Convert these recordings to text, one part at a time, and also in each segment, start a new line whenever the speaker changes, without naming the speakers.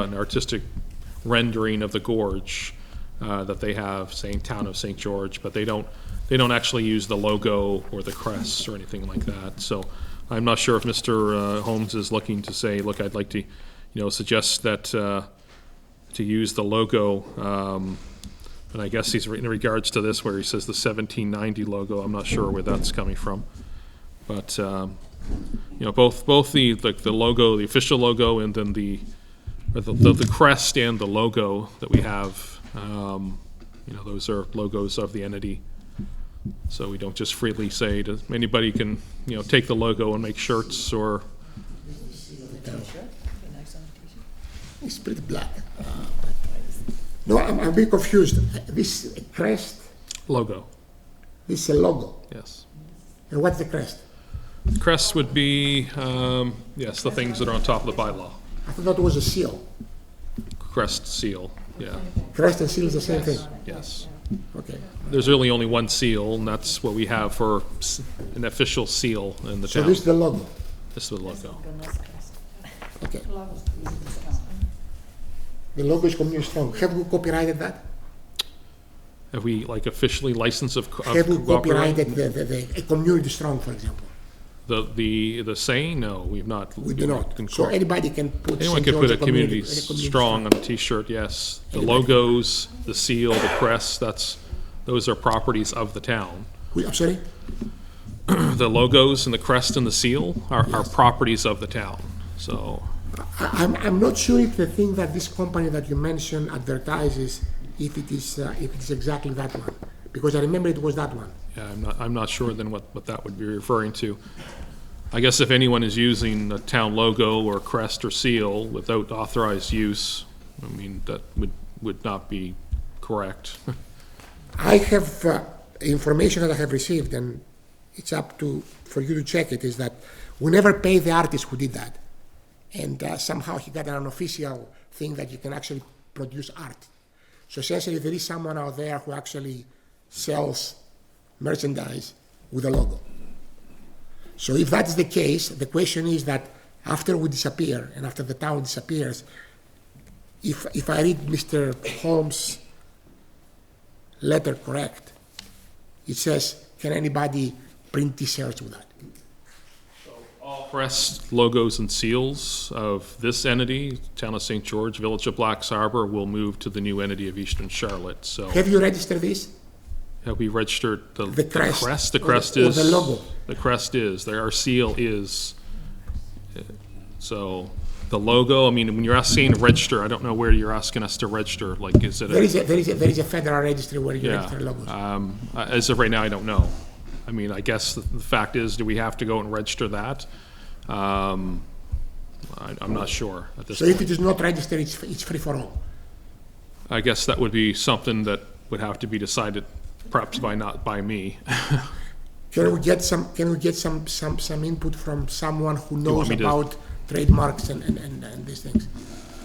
an artistic rendering of the gorge uh, that they have, saying Town of St. George, but they don't, they don't actually use the logo or the crest or anything like that. So I'm not sure if Mr. uh, Holmes is looking to say, look, I'd like to, you know, suggest that, uh, to use the logo. um, And I guess he's in regards to this where he says the 1790 logo. I'm not sure where that's coming from. But, um, you know, both, both the, the the logo, the official logo, and then the, or the, the the crest and the logo that we have, um, you know, those are logos of the entity. So we don't just freely say to, anybody can, you know, take the logo and make shirts or,
It's pretty black. Uh, but- No, I'm, I'm a bit confused. This crest,
logo,
this is a logo.
yes.
And what's the crest?
Crest would be, um, yes, the things that are on top of the bylaw.
I thought that was a seal.
Crest, seal, yeah,
Crest and seal is the same thing.
yes.
Okay.
There's really only one seal, and that's what we have for s- an official seal in the
So
town.
this
This
is the logo.
is the logo.
Okay. The logo is community strong. Have we copyrighted that?
Have we, like, officially licensed of co- of
Have we
cooperate?
copyrighted the, the, the a community strong, for example?
The, the, the saying, no, we've not.
We do not. So
Anyone
anybody can put. St.
could
George
put a community
a community
strong on a t-shirt, yes. The logos, the seal, the crest, that's, those are properties of the town.
We- I'm sorry?
The logos and the crest and the seal are, are properties of the town, so,
I- I'm, I'm not sure if the thing that this company that you mentioned advertises, if it is, uh, if it's exactly that one, because I remember it was that one.
yeah, I'm not, I'm not sure then what, what that would be referring to. I guess if anyone is using a town logo or crest or seal without authorized use, I mean, that would, would not be correct.
I have uh, information that I have received, and it's up to for you to check it. Is that we never paid the artist who did that, and uh, somehow he got an official thing that you can actually produce art. So essentially, there is someone out there who actually sells merchandise with a logo. So if that's the case, the question is that after we disappear and after the town disappears, if if I read Mr. Holmes' letter correct. It says, can anybody print t-shirts with that?
All crest, logos, and seals of this entity, Town of St. George, Village of Blacks Harbor, will move to the new entity of Eastern Charlotte. So
Have you registered this?
have we registered the the
The crest.
crest? The
Or the-
crest
or
is.
the logo.
The crest is, there, our seal is. So the logo, I mean, when you're asking to register, I don't know where you're asking us to register, like, is it
There
a?
is a, there is a, there is a federal registry where you
Yeah.
register logos.
Um, uh, As of right now, I don't know. I mean, I guess the the fact is, do we have to go and register that? Um, I- I'm not sure at this
So if
point.
it is not registered, it's, it's free for all.
I guess that would be something that would have to be decided perhaps by not, by me.
Can we get some, can we get some, some, some input from someone who knows
me to-
about trademarks and, and, and, and these things?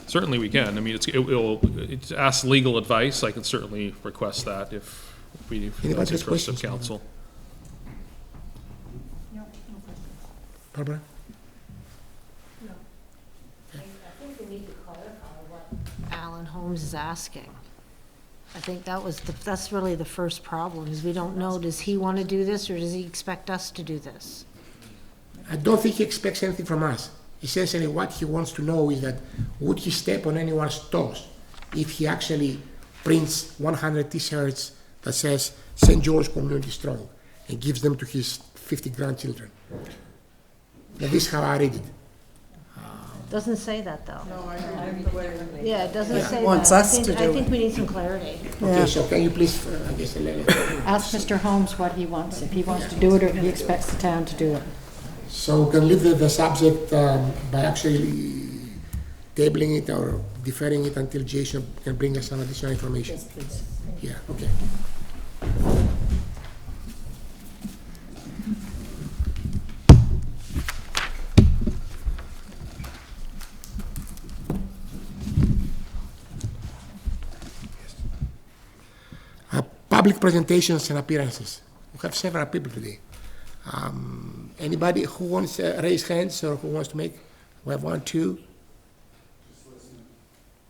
Certainly we can. I mean, it's, it will, it's ask legal advice. I can certainly request that if we, if
Anybody
that's
has
interest of
questions?
council.
Barbara?
I think we need to clarify what Alan Holmes is asking. I think that was, the that's really the first problem, is we don't know, does he want to do this, or does he expect us to do this?
I don't think he expects anything from us. Essentially, what he wants to know is that would he step on anyone's toes if he actually prints 100 T-shirts that says St. George Community Strong and gives them to his 50 grandchildren. That is how I read it.
Doesn't say that, though.
No, I read the way.
Yeah, it doesn't say that.
Wants
I
us
think-
to
I
do
think we need some clarity.
Okay, so can you please, uh, I guess, Elena.
Ask Mr. Holmes what he wants, if he wants to do it or if he expects the town to do it.
so we can leave the, the subject um, by actually tabling it or deferring it until Jason can bring us some additional information. Yes, please. Yeah, okay. Uh, Public presentations and appearances. We have several people today. Um, Anybody who wants to raise hands or who wants to make? We have one, two,